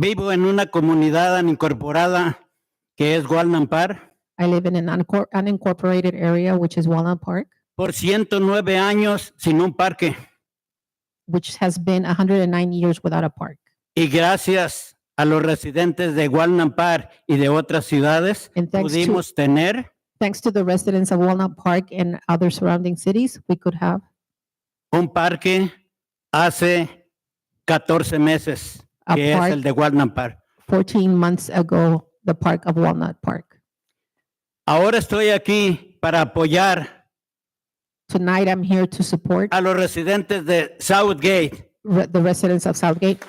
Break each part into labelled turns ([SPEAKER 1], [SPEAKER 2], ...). [SPEAKER 1] Vivo en una comunidad incorporada que es Walnut Park.
[SPEAKER 2] I live in an uncor- unincorporated area, which is Walnut Park,
[SPEAKER 1] Por 109 años sin un parque.
[SPEAKER 2] which has been 109 years without a park.
[SPEAKER 1] Y gracias a los residentes de Walnut Park y de otras ciudades,
[SPEAKER 2] And thanks to,
[SPEAKER 1] pudimos tener
[SPEAKER 2] thanks to the residents of Walnut Park and other surrounding cities, we could have
[SPEAKER 1] un parque hace 14 meses,
[SPEAKER 2] a
[SPEAKER 1] que es el
[SPEAKER 2] park
[SPEAKER 1] de Walnut Park.
[SPEAKER 2] 14 months ago, the park of Walnut Park.
[SPEAKER 1] Ahora estoy aquí para apoyar
[SPEAKER 2] Tonight, I'm here to support
[SPEAKER 1] a los residentes de Southgate
[SPEAKER 2] re- the residents of Southgate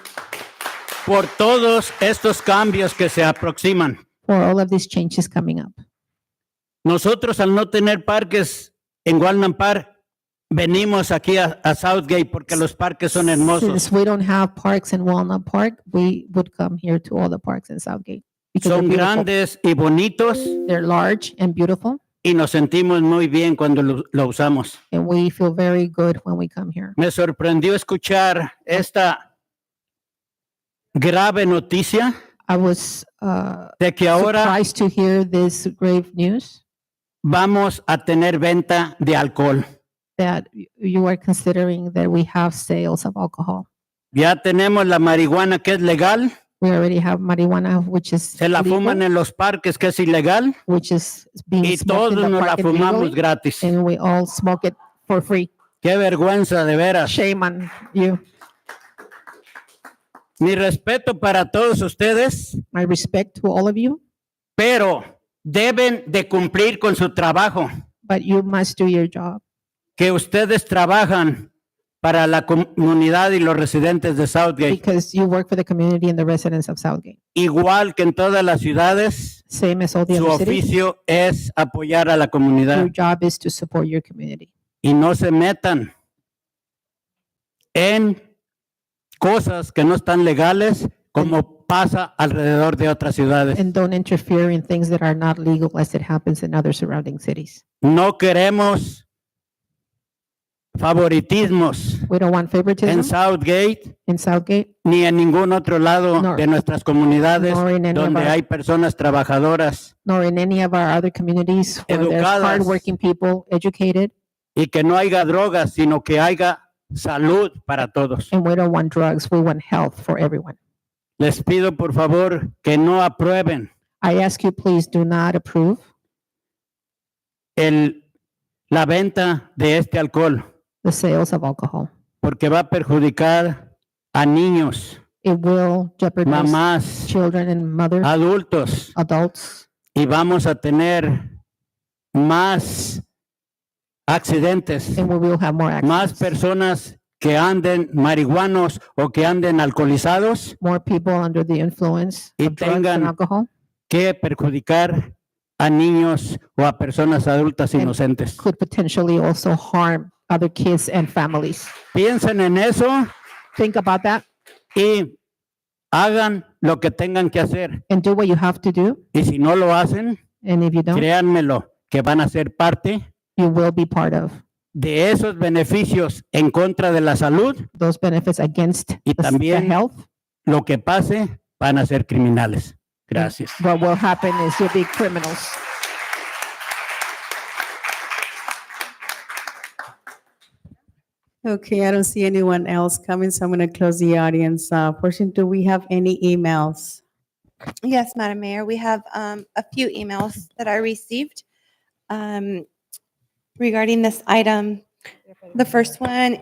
[SPEAKER 1] por todos estos cambios que se aproximan.
[SPEAKER 2] for all of these changes coming up.
[SPEAKER 1] Nosotros al no tener parques en Walnut Park, venimos aquí a, a Southgate porque los parques son hermosos,
[SPEAKER 2] Since we don't have parks in Walnut Park, we would come here to all the parks in Southgate. because they're
[SPEAKER 1] son
[SPEAKER 2] beautiful.
[SPEAKER 1] grandes y bonitos
[SPEAKER 2] They're large and beautiful,
[SPEAKER 1] y nos sentimos muy bien cuando lo, lo usamos.
[SPEAKER 2] and we feel very good when we come here.
[SPEAKER 1] Me sorprendió escuchar esta grave noticia
[SPEAKER 2] I was uh,
[SPEAKER 1] de que ahora
[SPEAKER 2] surprised to hear this grave news
[SPEAKER 1] vamos a tener venta de alcohol.
[SPEAKER 2] that y- you are considering that we have sales of alcohol.
[SPEAKER 1] Ya tenemos la marihuana que es legal,
[SPEAKER 2] We already have marijuana, which is
[SPEAKER 1] se la
[SPEAKER 2] legal,
[SPEAKER 1] fuman en los parques que es ilegal
[SPEAKER 2] which is being
[SPEAKER 1] y
[SPEAKER 2] smoked
[SPEAKER 1] todos
[SPEAKER 2] in the
[SPEAKER 1] nos la
[SPEAKER 2] park
[SPEAKER 1] fumamos
[SPEAKER 2] illegally,
[SPEAKER 1] gratis.
[SPEAKER 2] and we all smoke it for free.
[SPEAKER 1] Qué vergüenza, de veras.
[SPEAKER 2] Shame on you.
[SPEAKER 1] Mi respeto para todos ustedes,
[SPEAKER 2] My respect to all of you,
[SPEAKER 1] pero deben de cumplir con su trabajo,
[SPEAKER 2] but you must do your job.
[SPEAKER 1] que ustedes trabajan para la comunidad y los residentes de Southgate,
[SPEAKER 2] because you work for the community and the residents of Southgate.
[SPEAKER 1] igual que en todas las ciudades.
[SPEAKER 2] Same as all the
[SPEAKER 1] Su
[SPEAKER 2] other cities,
[SPEAKER 1] oficio es apoyar a la comunidad
[SPEAKER 2] your job is to support your community.
[SPEAKER 1] y no se metan en cosas que no están legales como pasa alrededor de otras ciudades.
[SPEAKER 2] And don't interfere in things that are not legal as it happens in other surrounding cities.
[SPEAKER 1] No queremos favoritismos.
[SPEAKER 2] We don't want
[SPEAKER 1] en
[SPEAKER 2] favoritism
[SPEAKER 1] Southgate
[SPEAKER 2] in Southgate
[SPEAKER 1] ni en ningún otro lado
[SPEAKER 2] No.
[SPEAKER 1] de nuestras comunidades
[SPEAKER 2] nor in any of
[SPEAKER 1] donde
[SPEAKER 2] our,
[SPEAKER 1] hay personas trabajadoras
[SPEAKER 2] nor in any of our other communities where there's
[SPEAKER 1] Educadas.
[SPEAKER 2] hardworking people, educated,
[SPEAKER 1] y que no haya drogas, sino que haya salud para todos.
[SPEAKER 2] and we don't want drugs, we want health for everyone.
[SPEAKER 1] Les pido por favor que no aprueben
[SPEAKER 2] I ask you, please do not approve
[SPEAKER 1] el, la venta de este alcohol
[SPEAKER 2] the sales of alcohol.
[SPEAKER 1] porque va a perjudicar a niños,
[SPEAKER 2] It will jeopardize
[SPEAKER 1] mamás,
[SPEAKER 2] children and mothers,
[SPEAKER 1] Ah. adultos
[SPEAKER 2] adults,
[SPEAKER 1] y vamos a tener más accidentes.
[SPEAKER 2] and we will have more
[SPEAKER 1] más
[SPEAKER 2] accidents.
[SPEAKER 1] personas que anden marihuanos o que anden alcoholizados
[SPEAKER 2] more people under the influence
[SPEAKER 1] Y
[SPEAKER 2] of drugs and
[SPEAKER 1] tengan
[SPEAKER 2] alcohol
[SPEAKER 1] que perjudicar a niños o a personas adultas
[SPEAKER 2] En-
[SPEAKER 1] inocentes.
[SPEAKER 2] could potentially also harm other kids and families.
[SPEAKER 1] Piensen en eso
[SPEAKER 2] Think about that
[SPEAKER 1] y hagan lo que tengan que hacer.
[SPEAKER 2] and do what you have to do.
[SPEAKER 1] Y si no lo hacen,
[SPEAKER 2] And if you don't,
[SPEAKER 1] créanmelo, que van a ser parte
[SPEAKER 2] you will be part of
[SPEAKER 1] de esos beneficios en contra de la salud.
[SPEAKER 2] those benefits against
[SPEAKER 1] Y
[SPEAKER 2] the, s- the
[SPEAKER 1] también-
[SPEAKER 2] health.
[SPEAKER 1] Lo que pase, van a ser criminales. Gracias.
[SPEAKER 2] What will happen is you'll be criminals.
[SPEAKER 3] Okay, I don't see anyone else coming, so I'm going to close the audience uh, portion. Do we have any emails?
[SPEAKER 4] Yes, Madam Mayor, we have um, a few emails that I received um, regarding this item. The first one,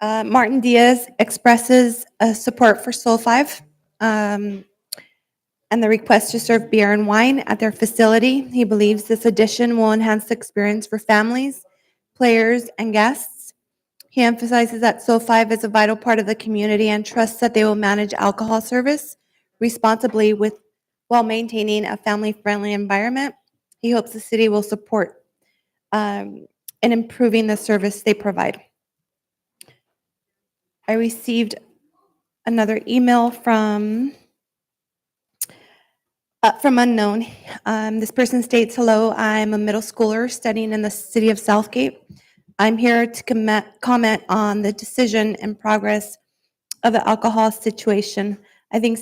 [SPEAKER 4] uh, Martin Diaz expresses uh, support for Soul Five um, and the request to serve beer and wine at their facility. He believes this addition will enhance the experience for families, players, and guests. He emphasizes that Soul Five is a vital part of the community and trusts that they will manage alcohol service responsibly with, while maintaining a family-friendly environment. He hopes the city will support um, in improving the service they provide. I received another email from uh, from unknown. Um, this person states, "Hello, I'm a middle schooler studying in the city of Southgate. I'm here to comment comment on the decision and progress of the alcohol situation. I think